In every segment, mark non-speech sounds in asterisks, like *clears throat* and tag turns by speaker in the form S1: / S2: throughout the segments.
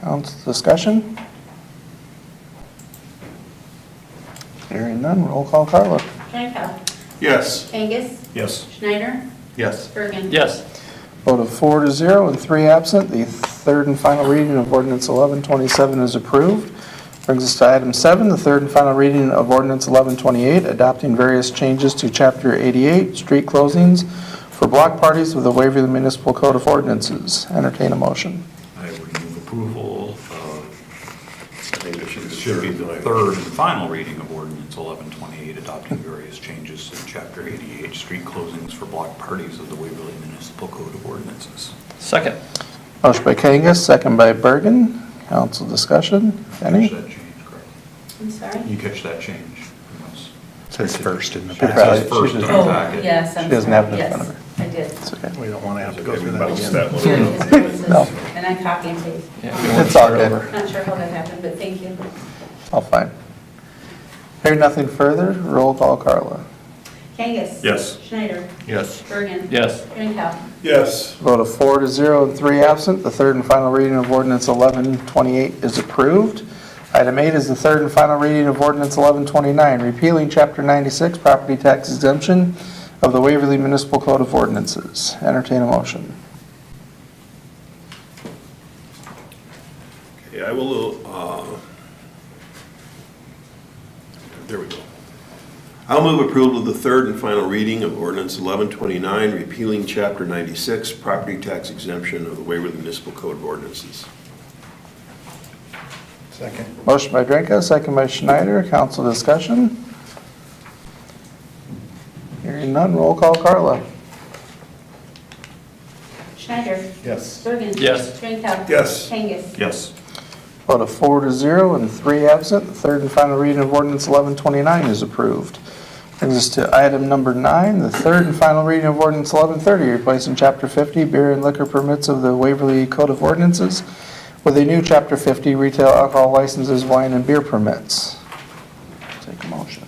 S1: Council discussion? Hearing none, roll call Carla.
S2: Shinnick.
S3: Yes.
S2: Angus.
S3: Yes.
S2: Schneider.
S3: Yes.
S2: Bergen.
S4: Yes.
S1: Vote of four to zero and three absent, the third and final reading of ordinance 1127 is approved. Brings us to item seven, the third and final reading of ordinance 1128, adopting various changes to Chapter 88, street closings for block parties with a waiver of the municipal code of ordinances. Entertain a motion.
S3: I would move approval of, I think it should- should be the third and final reading of ordinance 1128, adopting various changes in Chapter 88, street closings for block parties of the Waverly Municipal Code of Ordinances.
S4: Second.
S1: Motion by Kangas, second by Bergen. Council discussion, any?
S3: Catch that change, correct?
S2: I'm sorry.
S3: You catch that change? Yes.
S5: Says first in the
S1: Should
S3: That's
S5: packet.
S1: probably-
S3: his first
S1: she just-
S3: in
S2: Oh,
S3: the packet.
S6: Oh, yes, I'm
S1: She doesn't have it in front of
S6: sorry.
S1: her.
S6: Yes, I did.
S1: It's okay.
S5: We don't want to have to go
S3: Okay, we
S5: through that
S3: bounced
S5: again.
S6: Here it is, here it is.
S1: No.
S6: And I copy and paste.
S1: It's all good.
S6: Not sure how that happened, but thank you.
S1: All fine. Hearing nothing further, roll call Carla.
S2: Angus.
S3: Yes.
S2: Schneider.
S3: Yes.
S2: Bergen.
S4: Yes.
S2: Shinnick.
S3: Yes.
S1: Vote of four to zero and three absent, the third and final reading of ordinance 1128 is approved. Item eight is the third and final reading of ordinance 1129, repealing Chapter 96, property tax exemption of the Waverly Municipal Code of Ordinances. Entertain a motion.
S3: Okay, I will, uh, there we go.
S7: I'll move approval of the third and final reading of ordinance 1129, repealing Chapter 96, property tax exemption of the Waverly Municipal Code of Ordinances.
S5: Second.
S1: Motion by Drenka, second by Schneider, council discussion. Hearing none, roll call Carla.
S2: Schneider.
S5: Yes.
S2: Bergen.
S4: Yes.
S2: Shinnick.
S7: Yes.
S2: Angus.
S3: Yes.
S1: Vote of four to zero and three absent, the third and final reading of ordinance 1129 is approved. Brings us to item number nine, the third and final reading of ordinance 1130, replacing Chapter 50 beer and liquor permits of the Waverly Code of Ordinances with a new Chapter 50 retail alcohol licenses, wine and beer permits. Take a motion.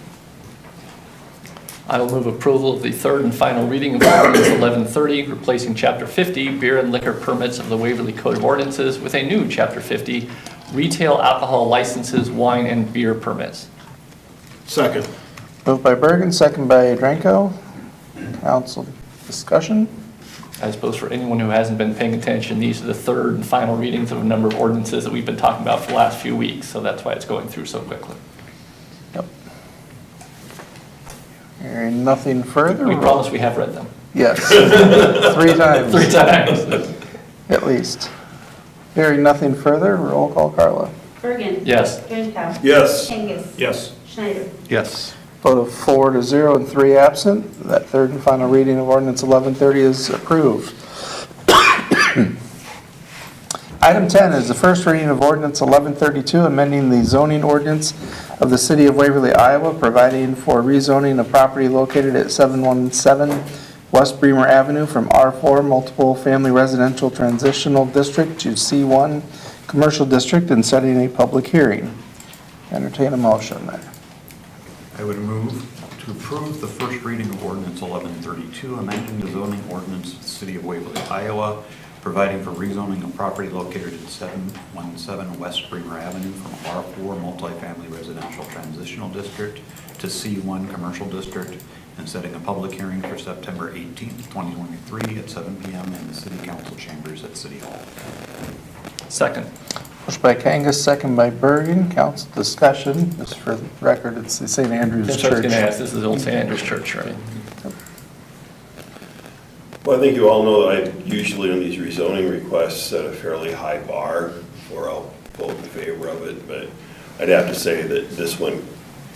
S4: I will move approval of the third and final reading of ordinance 1130, replacing Chapter 50, beer and liquor permits of the Waverly Code of Ordinances with a new Chapter 50, retail alcohol licenses, wine and beer permits.
S7: Second.
S1: Moved by Bergen, second by Dranko. Council discussion?
S4: I suppose for anyone who hasn't been paying attention, these are the third and final readings of a number of ordinances that we've been talking about for the last few weeks, so that's why it's going through so quickly.
S1: Yep. Hearing nothing further.
S4: We promise we have read them
S1: Yes. Three times.
S4: three *laughs* times.
S1: At least. Hearing nothing further, roll call Carla.
S2: Bergen.
S4: Yes.
S2: Shinnick.
S7: Yes.
S2: Angus.
S3: Yes.
S2: Schneider.
S5: Yes.
S1: Vote of four to zero and three absent. That third and final reading of ordinance 1130 is approved. *clears throat* Item 10 is the first reading of ordinance 1132, amending the zoning ordinance of the city of Waverly, Iowa, providing for rezoning of property located at 717 West Bremer Avenue from R4 Multiple Family Residential Transitional District to C1 Commercial District and setting a public hearing. Entertain a motion there.
S3: I would move to approve the first reading of ordinance 1132, amending the zoning ordinance of the city of Waverly, Iowa, providing for rezoning of property located at 717 West Bremer Avenue from R4 Multifamily Residential Transitional District to C1 Commercial District, and setting a public hearing for September 18th, 2023, at 7 PM in the city council chambers at City Hall.
S4: Second.
S1: Motion by Kangas, second by Bergen. Council discussion, just for the record, it's the St. Andrew's
S4: That's what I was
S1: Church.
S4: going to ask, this is Old St. Andrew's Church, right?
S7: Well, I think you all know, I usually on these rezoning requests set a fairly high bar, or I'll vote in favor of it, but I'd have to say that this one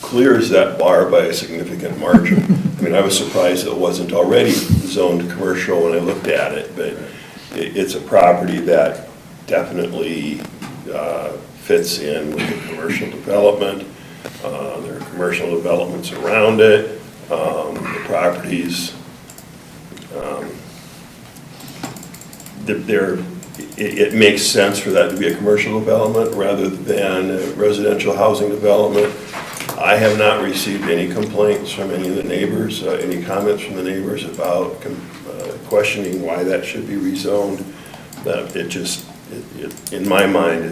S7: clears that bar by a significant margin. I mean, I was surprised it wasn't already zoned commercial when I looked at it, but it, it's a property that definitely uh, fits in with the commercial development. Uh, There are commercial developments around it. Um, The properties that there, it, it makes sense for that to be a commercial development rather than a residential housing development. I have not received any complaints from any of the neighbors, uh, any comments from the neighbors about com- uh, questioning why that should be rezoned. That it just, it- it, in my mind,